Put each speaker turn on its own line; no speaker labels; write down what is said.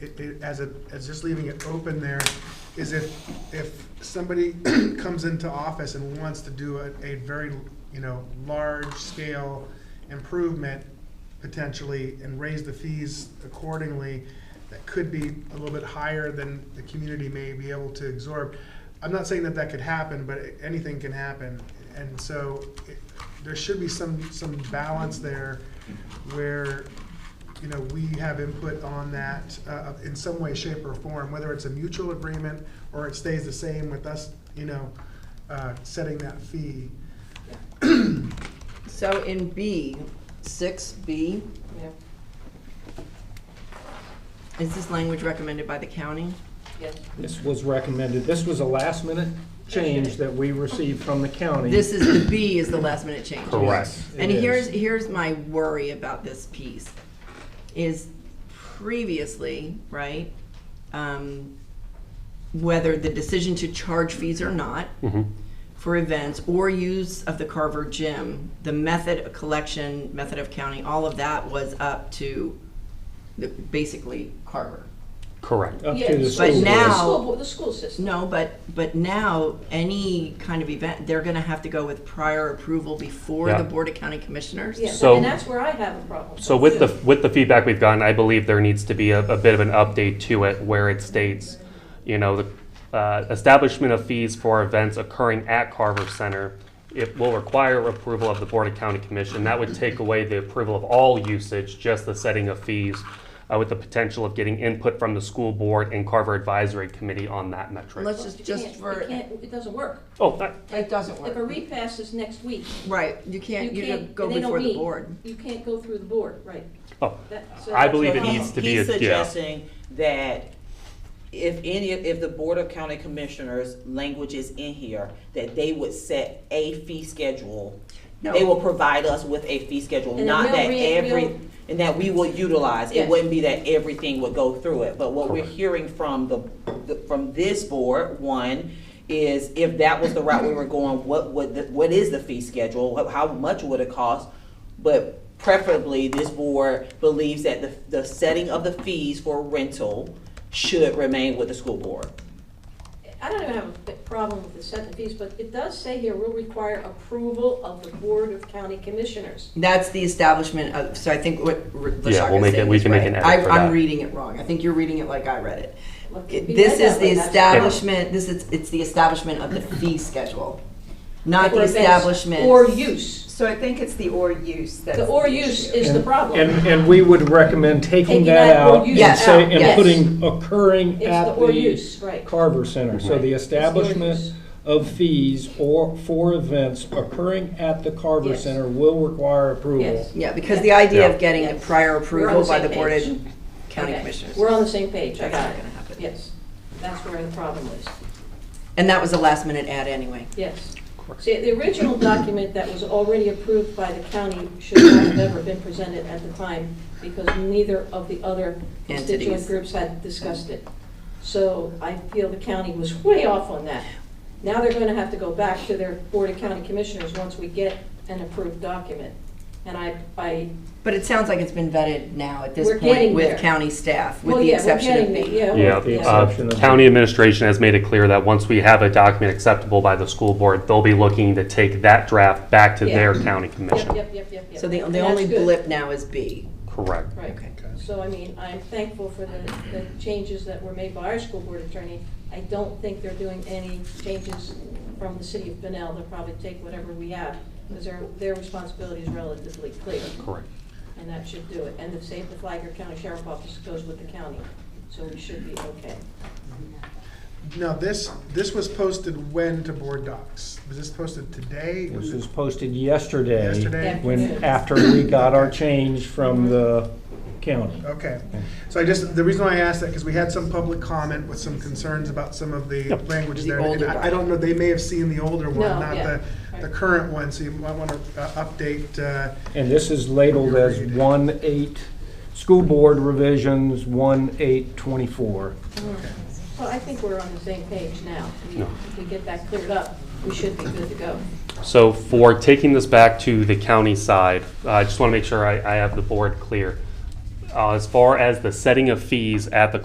it, it, as a, as just leaving it open there, is if, if somebody comes into office and wants to do a, a very, you know, large-scale improvement potentially and raise the fees accordingly, that could be a little bit higher than the community may be able to absorb. I'm not saying that that could happen, but anything can happen. And so it- there should be some, some balance there where, you know, we have input on that uh, in some way, shape, or form, whether it's a mutual agreement or it stays the same with us, you know, uh, setting that fee.
So in B, six B,
Yeah,
is this language recommended by the county?
yes.
This was recommended, this was a last minute change that we received from the county.
This is, the B is the last minute change.
Correct.
Yes, it
And
is.
here's, here's my worry about this piece, is previously, right, um, whether the decision to charge fees or not for events or use of the Carver Gym, the method of collection, method of counting, all of that was up to the, basically Carver.
Correct.
Up
Yeah,
to the
it's
school
But
board.
The
now-
school, bo- the school system.
No, but, but now, any kind of event, they're gonna have to go with prior approval before
Yeah.
the Board of County Commissioners?
Yeah,
So-
and that's where I have a problem.
So with the, with the feedback we've gotten, I believe there needs to be a, a bit of an update to it where it states, you know, the uh, establishment of fees for events occurring at Carver Center, it will require approval of the Board of County Commission. That would take away the approval of all usage, just the setting of fees, uh, with the potential of getting input from the school board and Carver Advisory Committee on that metric.
Let's just,
You
just
can't-
for,
you can't- It doesn't work.
Oh, that-
it doesn't
If a
work.
repass is next week,
Right, you
you
can't, you don't
can't,
go
they don't
before the
meet.
board.
You can't go through the board, right.
oh,
That- so
I
that's
believe it
what-
needs to be, a
He's
yeah.
suggesting that if any, if the Board of County Commissioners language is in here, that they would set a fee schedule. They
No.
will provide us with a fee schedule,
And then
not
we'll
that
re- we'll-
every, and that we will utilize. It
Yes.
wouldn't be that everything would go through it, but what we're
Correct.
hearing from the, the- from this board, one, is if that was the route we were going, what would, the- what is the fee schedule? How- How much would it cost? But preferably, this board believes that the, the setting of the fees for rental should remain with the school board.
I don't even have a big problem with the set the fees, but it does say here, will require approval of the Board of County Commissioners.
That's the establishment of, so I think what R-
we'll
Lashaka's
make it-
saying
we
is
can make
right.
an edit
I-
for
I'm
that.
reading it wrong. I think you're reading it like I read it.
Well, it could be
This is
read that
the
way, that's-
establishment, this is, it's the establishment of the fee schedule, not the
Or events
establishment.
Or use.
So I think it's the or use that
The
is
or
the
use
issue.
is the problem.
And, and we would recommend taking that
that or
out
use
and say,
out,
and
yes.
putting occurring
It's the
at
or use,
the
right.
Carver Center. So the
use.
establishment of fees or, for events occurring at the Carver
Yes.
Center will require approval.
Yes.
Yeah, because the idea
Yeah.
of getting the
Yes.
prior
We're on
approval
the
by
same
the Board of
page.
County
Okay.
Commissioners.
We're on the same page, I
That's
got
not
it.
gonna happen.
Yes, that's where the problem is.
And that was a last minute add anyway.
Yes. See, the original document that was already approved by the county should not have ever been presented at the time because neither of the other constituent
Entities.
groups had discussed it. So I feel the county was way off on that. Now they're going to have to go back to their Board of County Commissioners once we get an approved document. And I, I,
But it sounds like it's been vetted now at this
We're
point
getting there.
with county staff, with
well,
the
oh, yeah, we're
exception
getting
of
it,
me.
yeah.
Yeah,
well,
the
yeah.
uh,
exception of-
county administration has made it clear that once we have a document acceptable by the school board, they'll be looking to take that draft back to their
Yeah.
county
Yep,
commission.
yep, yep, yep, yep.
So the,
And
the
that's
only
good.
blip now is B.
Correct.
Right.
Okay.
So, I mean, I'm thankful for the, the changes that were made by our school board attorney. I don't think they're doing any changes from the city of Benel. They'll probably take whatever we have, because their, their responsibility is relatively clear,
Correct.
and that should do it. And the Save the Flagler County Sheriff Office goes with the county, so we should be okay.
Now, this, this was posted when to board docs? Was this posted today?
This was posted yesterday.
Yesterday?
When, after we got our change from the county.
Okay. So I just, the reason why I asked that, because we had some public comment with some concerns about some of the language
The
there. And
older
I I don't know, they may have seen the older one,
No,
not
yeah.
the, the current one, so you might want to update, uh,
And this is labeled as one eight, school board revisions, one eight twenty-four.
So I think we're on the same page now. We-
No.
If we get that cleared up, we should be good to go.
So for taking this back to the county side, uh, I just want to make sure I, I have the board clear. Uh, As far as the setting of fees at the